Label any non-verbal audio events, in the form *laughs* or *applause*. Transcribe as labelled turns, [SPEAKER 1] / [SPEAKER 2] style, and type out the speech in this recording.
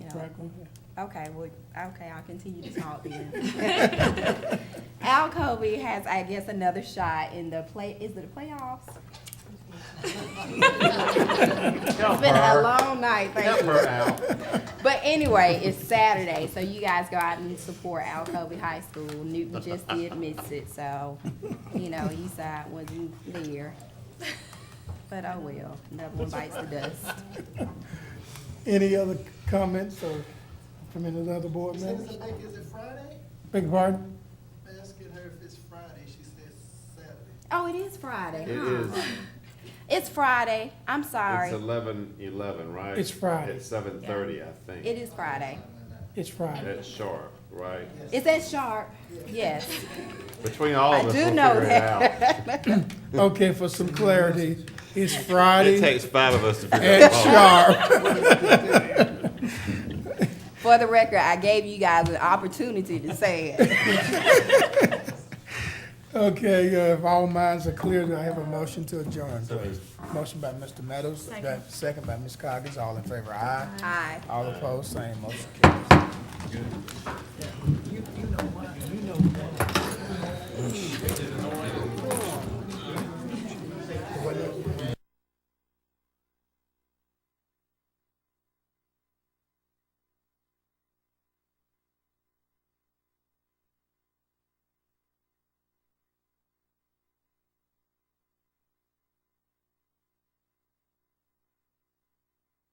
[SPEAKER 1] no.
[SPEAKER 2] Franklin.
[SPEAKER 1] Okay, well, okay, I'll continue to talk then. *laughs* Al Kobe has, I guess, another shot in the play, is it the playoffs? It's been a long night,
[SPEAKER 3] *laughs*
[SPEAKER 1] thank you. But anyway, it's Saturday, so you guys go out and support Al Kobe High School. Newton *laughs* just did miss it, so, you know, Eastside wasn't there. But oh well, another one bites the dust.
[SPEAKER 2] Any other comments or from any of the other board members?
[SPEAKER 4] Citizen Baker, is it Friday?
[SPEAKER 2] Beg your pardon?
[SPEAKER 4] Asking her if it's Friday, she said Saturday.
[SPEAKER 1] Oh, it is Friday,
[SPEAKER 3] It
[SPEAKER 1] huh?
[SPEAKER 3] is,
[SPEAKER 1] It's Friday, I'm sorry.
[SPEAKER 3] it's eleven, eleven, right?
[SPEAKER 2] It's Friday.
[SPEAKER 3] It's seven thirty, I think.
[SPEAKER 1] It is Friday.
[SPEAKER 2] It's Friday.
[SPEAKER 3] That's sharp, right?
[SPEAKER 1] Is that sharp? Yes.
[SPEAKER 3] Between all
[SPEAKER 1] I
[SPEAKER 3] of us,
[SPEAKER 1] do
[SPEAKER 3] we'll
[SPEAKER 1] know
[SPEAKER 3] figure it out.
[SPEAKER 2] Okay, for some clarity, it's Friday
[SPEAKER 3] five of us to figure
[SPEAKER 2] at sharp.
[SPEAKER 1] For the record, I gave you guys an opportunity to say it.
[SPEAKER 2] Okay, uh, if all minds are clear, do I have a motion to adjourn, please? Motion by Mr. Meadows, second by Ms. Coggins, all in favor, aye.
[SPEAKER 1] Aye.
[SPEAKER 2] All opposed, same, motion carries.